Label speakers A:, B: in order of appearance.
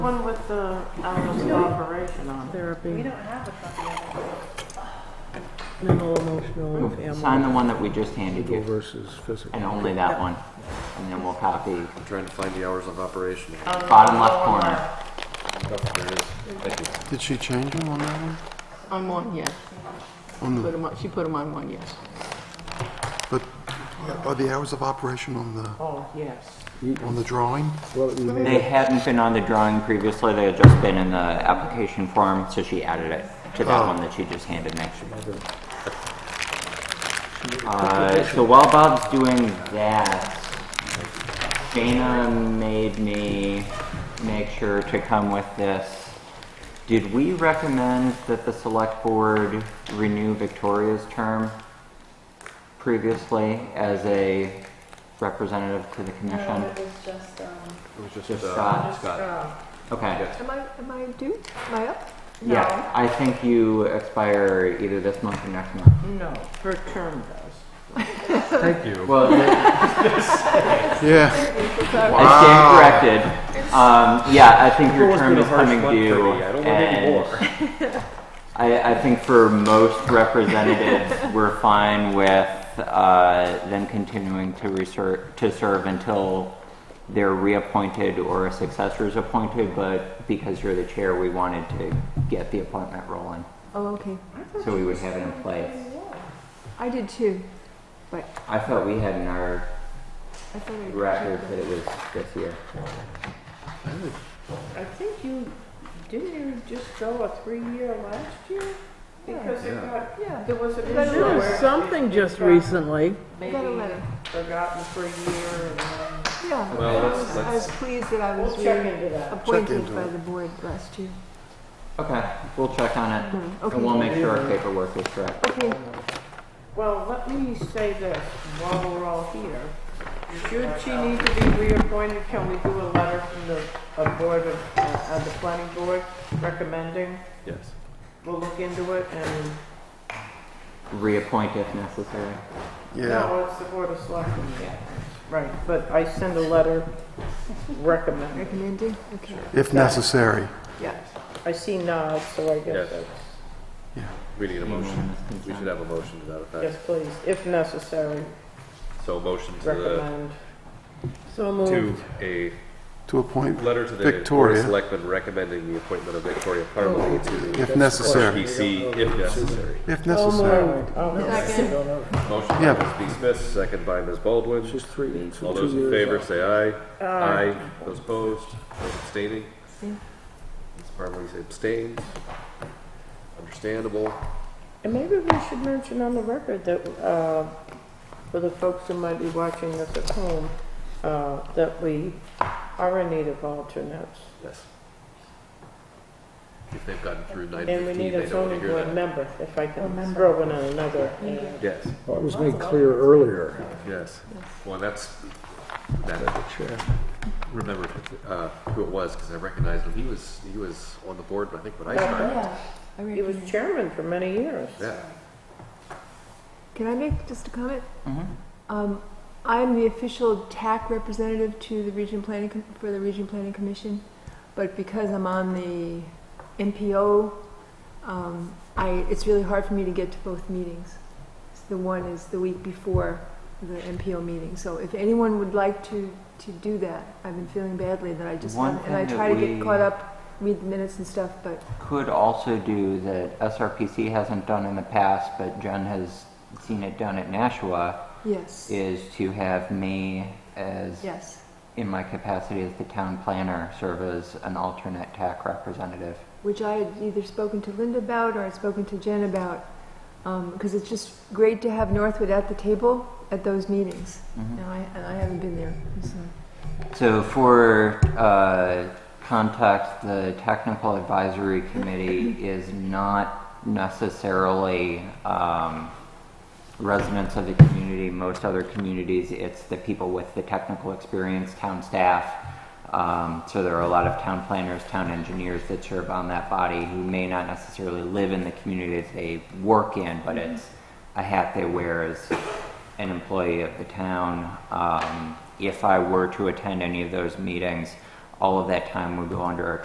A: One with the hours of operation on it.
B: therapy,
C: have a copy of it.
B: mental, emotional, and family.
D: Sign the one that we just handed
E: legal
D: you,
E: versus physical.
D: and only that one. And then we'll copy
F: I'm trying to find the hours of operation.
D: bottom left corner.
F: Oh, there it is. Thank you.
E: Did she change them on that one?
G: On one, yes. Put 'em on- she put them on one, yes.
H: But are the hours of operation on the,
A: Oh, yes.
H: on the drawing?
E: Well, you made
D: They hadn't been on the drawing previously, they had just been in the application form, so she added it to that one that she just handed me. Uh, so while Bob's doing that, Dana made me make sure to come with this. Did we recommend that the select board renew Victoria's term previously as a representative to the commission?
C: No, it was just, um,
F: It was just,
D: Just
F: uh,
D: Scott.
F: Scott.
D: Okay.
F: Yeah.
G: Am I, am I due? Am I up?
D: Yeah, I think you expire either this month or next month.
A: No, her term does.
E: Thank you.
D: Well, I
E: Yeah,
D: stand corrected. Um, yeah, I think your
F: It's always
D: term
F: been a
D: is coming
F: harsh month
D: due.
F: for me. I don't want any
D: and
F: more.
D: I, I think for most representatives, we're fine with uh, them continuing to reser to serve until they're reappointed or a successor is appointed. But because you're the chair, we wanted to get the appointment rolling,
G: Oh, okay.
D: so we would have it in place.
G: I did too, but
D: I thought we had in our
G: I thought I.
D: record that it was this year.
A: I think you, didn't you just go a three-year last year? Because it got,
G: Yeah.
A: there was an issue
G: But it
A: where
B: There was
A: it
B: something just
A: got
B: recently.
A: Maybe
G: Got a letter.
A: forgotten for a year and then.
G: Yeah.
F: Well,
G: I
F: let's-
G: was- I was pleased that I was
A: We'll check
G: re-
A: into that.
G: appointed
H: into
G: by
H: it.
G: the board last year.
D: Okay, we'll check on it,
G: okay.
D: and we'll make sure our paperwork is correct.
G: Okay,
A: Well, let me say this while we're all here. Should she need to be reappointed, can we do a letter from the, a board of, uh, the planning board recommending?
F: Yes.
A: We'll look into it and,
D: Reappoint if necessary.
H: yeah.
A: no, it's the board of selectmen. Right, but I send a letter recommending.
G: recommended, okay.
H: If necessary.
A: Yes, I see nods, so I guess
F: Yes.
A: that's,
F: We need a motion.
D: Unanimous consent.
F: We should have a motion to that effect.
A: yes, please, if necessary,
F: So a motion to the,
A: recommend.
B: So
F: to
B: moved.
F: a
H: To appoint,
F: letter to the Board of
H: Victoria.
F: Selectmen recommending the appointment of Victoria Parmalee to the
H: if necessary.
F: PC if necessary.
H: If
B: So
H: necessary.
B: moved. Oh,
G: Second,
F: Motion by
H: Yeah.
F: Ms. B. Smith, second by Ms. Baldwin.
E: just three, two
F: All those in
E: years.
F: favor, say aye. Aye. Those opposed, those abstaining. Ms. Parmalee abstains. Understandable.
A: And maybe we should mention on the record that, uh, for the folks who might be watching this at home, uh, that we are in need of alternates.
F: Yes. If they've gotten through nine
A: And we
F: fifteen,
A: need a
F: they don't
A: zoning
F: want to hear
A: board
F: that.
A: Oh, member, if I can throw in another. uh,
F: Yes,
E: Well, it was made clear earlier.
F: yes. Well, that's, that,
E: Chair.
F: remember uh, who it was, because I recognized him. He was, he was on the board, I think, when I started.
G: I
A: He was
G: recommend.
A: chairman for many years.
F: Yeah.
G: Can I make just a comment?
D: Mm-hmm.
G: Um, I'm the official TAC representative to the Region Planning, Com- for the Region Planning Commission, but because I'm on the MPO, um, I, it's really hard for me to get to both meetings. So The one is the week before the MPO meeting, so if anyone would like to, to do that, I've been feeling badly that I just,
D: One
G: and I
D: thing
G: try to
D: that
G: get
D: we-
G: caught up, read the minutes and stuff, but
D: Could also do that SRPC hasn't done in the past, but Jen has seen it done at Nashua,
G: yes,
D: is to have me as,
G: yes,
D: in my capacity as the town planner, serve as an alternate TAC representative.
G: which I had either spoken to Linda about or I'd spoken to Jen about, because it's just great to have Northwood at the table at those meetings.
D: Mhm.
G: And, I, and I haven't been there. So.
D: So for uh, context, the technical advisory committee is not necessarily um, residents of the community. Most other communities, it's the people with the technical experience, town staff. Um, so there are a lot of town planners, town engineers that serve on that body who may not necessarily live in the community that they work in, but it's a hat they wear as an employee of the town. Um, if I were to attend any of those meetings, all of that time would go under our